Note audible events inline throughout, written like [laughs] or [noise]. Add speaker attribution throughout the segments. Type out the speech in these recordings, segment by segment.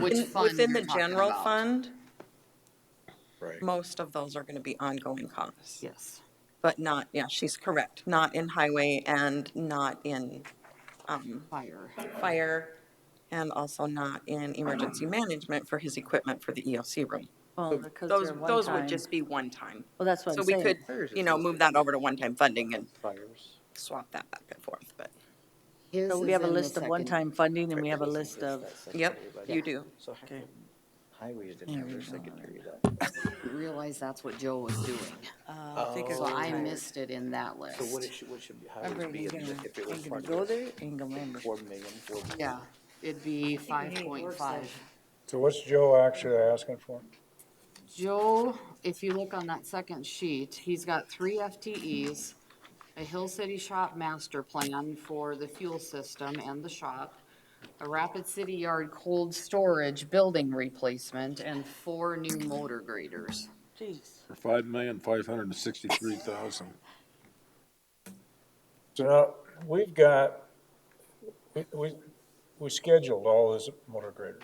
Speaker 1: Which
Speaker 2: In-
Speaker 1: fund
Speaker 2: Within
Speaker 1: you're
Speaker 2: the
Speaker 1: talking
Speaker 2: general
Speaker 1: about.
Speaker 2: fund,
Speaker 3: Right.
Speaker 2: most of those are going to be ongoing costs.
Speaker 4: Yes.
Speaker 2: But not, yeah, she's correct, not in highway and not in
Speaker 4: Fire.
Speaker 2: fire and also not in emergency management for his equipment for the EOC room.
Speaker 4: Well, because
Speaker 2: Those,
Speaker 4: they're one
Speaker 2: those would
Speaker 4: time.
Speaker 2: just be one-time.
Speaker 4: Well, that's what
Speaker 2: So
Speaker 4: I'm
Speaker 2: we could,
Speaker 4: saying.
Speaker 2: you know, move that over to one-time funding and
Speaker 3: Fires.
Speaker 2: swap that back and forth, but,
Speaker 1: His
Speaker 4: So
Speaker 1: is
Speaker 4: we have a
Speaker 1: in the
Speaker 4: list of
Speaker 1: second.
Speaker 4: one-time funding and we have a list of,
Speaker 2: yep, you do.
Speaker 3: So how
Speaker 4: Okay.
Speaker 3: come highways didn't have their secondary
Speaker 4: [laughs]
Speaker 3: then?
Speaker 1: Realize that's what Joe was
Speaker 4: [sighs]
Speaker 1: doing.
Speaker 4: I think
Speaker 1: So I missed it in that list.
Speaker 3: So what it should, what should be- highways
Speaker 4: Remember,
Speaker 3: be
Speaker 4: you're
Speaker 3: if
Speaker 4: gonna,
Speaker 3: if it
Speaker 4: I'm
Speaker 3: was
Speaker 4: gonna
Speaker 3: part
Speaker 4: go
Speaker 3: of
Speaker 4: there,
Speaker 3: this?
Speaker 4: ain't gonna remember.
Speaker 3: Four million, four million.
Speaker 1: Yeah, it'd be five point five.
Speaker 5: So what's Joe actually asking for?
Speaker 1: Joe, if you look on that second sheet, he's got three FTEs, a Hill City Shop master plan for the fuel system and the shop, a Rapid City Yard cold storage building replacement, and four new motor graders.
Speaker 4: Jeez.
Speaker 6: for five million, five hundred and sixty-three thousand.
Speaker 5: So now, we've got, we, we, we scheduled all those motor graders.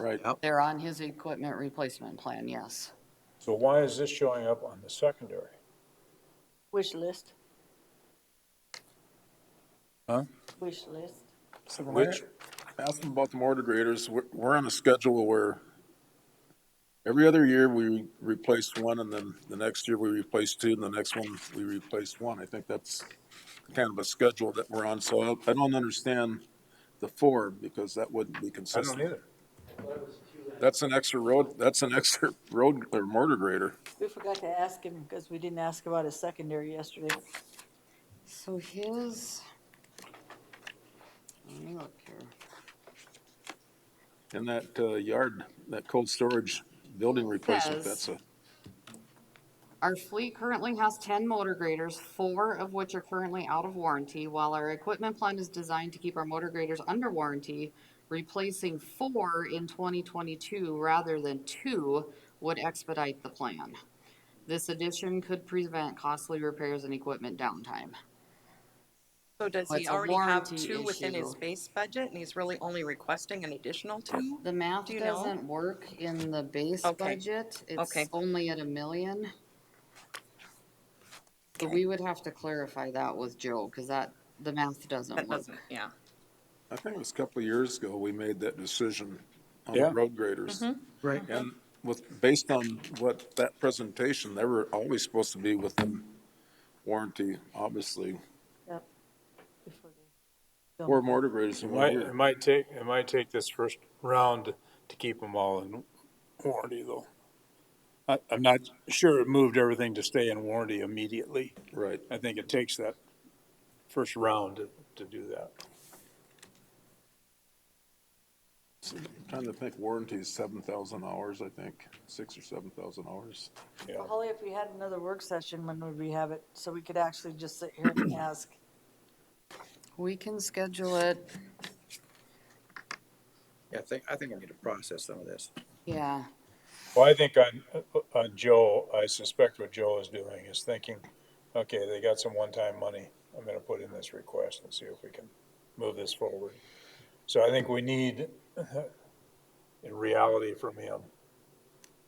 Speaker 6: Right,
Speaker 1: They're on his equipment replacement plan, yes.
Speaker 5: So why is this showing up on the secondary?
Speaker 4: Wish list.
Speaker 5: Huh?
Speaker 4: Wish list.
Speaker 6: which, ask them about the mortar graders, we're, we're on a schedule where every other year we replace one and then the next year we replace two and the next one we replace one. I think that's kind of a schedule that we're on, so I, I don't understand the four because that wouldn't be
Speaker 5: I don't
Speaker 6: consistent.
Speaker 5: either.
Speaker 6: That's an extra road, that's an extra road or mortar grader.
Speaker 4: We forgot to ask him because we didn't ask about his secondary yesterday.
Speaker 1: So his, let me look here.
Speaker 6: And that, uh, yard, that cold storage building replacement,
Speaker 1: Says-
Speaker 6: that's a,
Speaker 1: Our fleet currently has ten motor graders, four of which are currently out of warranty, while our equipment plan is designed to keep our motor graders under warranty, replacing four in twenty twenty-two rather than two would expedite the plan. This addition could prevent costly repairs and equipment downtime.
Speaker 2: So does
Speaker 1: Well, it's a
Speaker 2: he already have
Speaker 1: warranty
Speaker 2: two within his
Speaker 1: issue.
Speaker 2: base budget and he's really only requesting an additional two?
Speaker 1: The math
Speaker 2: Do you know?
Speaker 1: doesn't work in the base
Speaker 2: Okay.
Speaker 1: budget. It's
Speaker 2: Okay.
Speaker 1: only at a million. So we would have to clarify that with Joe, because that, the math doesn't
Speaker 2: That
Speaker 1: work.
Speaker 2: doesn't, yeah.
Speaker 6: I think it was a couple of years ago, we made that decision on
Speaker 5: Yeah.
Speaker 6: the road graders.
Speaker 3: Right.
Speaker 6: And with, based on what that presentation, they were always supposed to be within warranty, obviously.
Speaker 4: Yep. Before they-
Speaker 6: Four mortar graders in one
Speaker 5: Might, it
Speaker 6: year.
Speaker 5: might take, it might take this first round to keep them all in warranty though. I, I'm not sure it moved everything to stay in warranty immediately.
Speaker 6: Right.
Speaker 5: I think it takes that first round to, to do that.
Speaker 6: So, I'm Trying to think, warranty is seven thousand hours, I think, six or seven thousand hours.
Speaker 5: Yeah.
Speaker 4: Holly, if we had another work session, when would we have it? So we could actually just sit here and ask.
Speaker 1: We can schedule it,
Speaker 3: Yeah, I think, I think I need to process some of this.
Speaker 1: yeah.
Speaker 5: Well, I think on, uh, on Joe, I suspect what Joe is doing is thinking, okay, they got some one-time money. I'm gonna put in this request and see if we can move this forward. So I think we need, [laughs] in reality from him,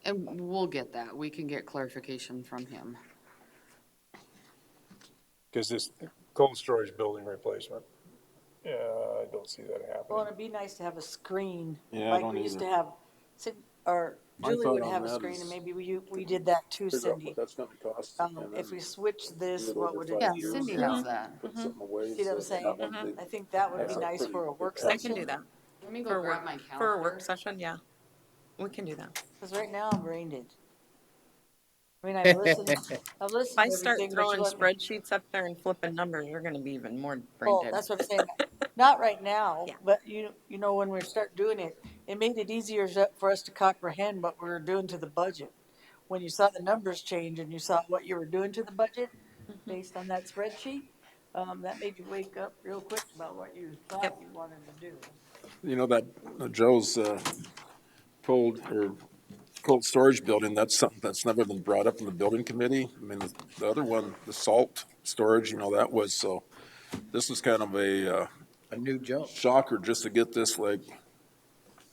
Speaker 1: And we'll get that. We can get clarification from him.
Speaker 5: because this cold storage building replacement, yeah, I don't see that
Speaker 4: Well,
Speaker 5: happening.
Speaker 4: it'd be nice to have a screen,
Speaker 6: Yeah, I
Speaker 4: like
Speaker 6: don't
Speaker 4: we used to
Speaker 6: either.
Speaker 4: have, Sid- or
Speaker 6: My
Speaker 4: Julie
Speaker 6: thought
Speaker 4: would
Speaker 6: on
Speaker 4: have a
Speaker 6: that
Speaker 4: screen,
Speaker 6: is
Speaker 4: and maybe we, we did that too,
Speaker 6: Figure out
Speaker 4: Cindy.
Speaker 6: what that's gonna cost.
Speaker 4: Um,
Speaker 6: and
Speaker 4: if
Speaker 6: then
Speaker 4: we switch this,
Speaker 6: it
Speaker 4: what
Speaker 6: over
Speaker 4: would
Speaker 6: five
Speaker 4: it
Speaker 1: Yeah,
Speaker 4: be?
Speaker 6: years.
Speaker 1: Cindy has that.
Speaker 6: Put something away.
Speaker 4: See what
Speaker 6: so
Speaker 4: I'm
Speaker 6: that
Speaker 4: saying?
Speaker 6: won't be-
Speaker 4: I think that would be
Speaker 6: That's a
Speaker 4: nice
Speaker 6: pretty
Speaker 4: for a
Speaker 6: good
Speaker 4: work
Speaker 6: price.
Speaker 2: I
Speaker 4: session.
Speaker 2: can do that.
Speaker 1: Let me
Speaker 2: For
Speaker 1: go
Speaker 2: a
Speaker 1: grab my
Speaker 2: work,
Speaker 1: calendar.
Speaker 2: for a work session, yeah. We can do that.
Speaker 4: Because right now I'm brain dead. I mean, I've listened, I've listened
Speaker 2: If
Speaker 4: to
Speaker 2: I start
Speaker 4: everything, but
Speaker 2: throwing
Speaker 4: you let me.
Speaker 2: spreadsheets up there and flipping numbers, you're gonna be even more brain
Speaker 4: Well,
Speaker 2: dead.
Speaker 4: that's what I'm
Speaker 2: [laughs]
Speaker 4: saying. Not right now,
Speaker 2: Yeah.
Speaker 4: but you, you know, when we start doing it, it made it easier so- for us to comprehend what we were doing to the budget. When you saw the numbers change and you saw what you were doing to the budget
Speaker 2: Mm-hmm.
Speaker 4: based on that spreadsheet, um, that made you wake up real quick about what you thought
Speaker 2: Yep.
Speaker 4: you wanted to do.
Speaker 6: You know, that uh, Joe's uh, cold or cold storage building, that's something that's never been brought up in the building committee. I mean, the other one, the salt storage, you know, that was, so this is kind of a uh,
Speaker 3: A new jump.
Speaker 6: shocker just to get this like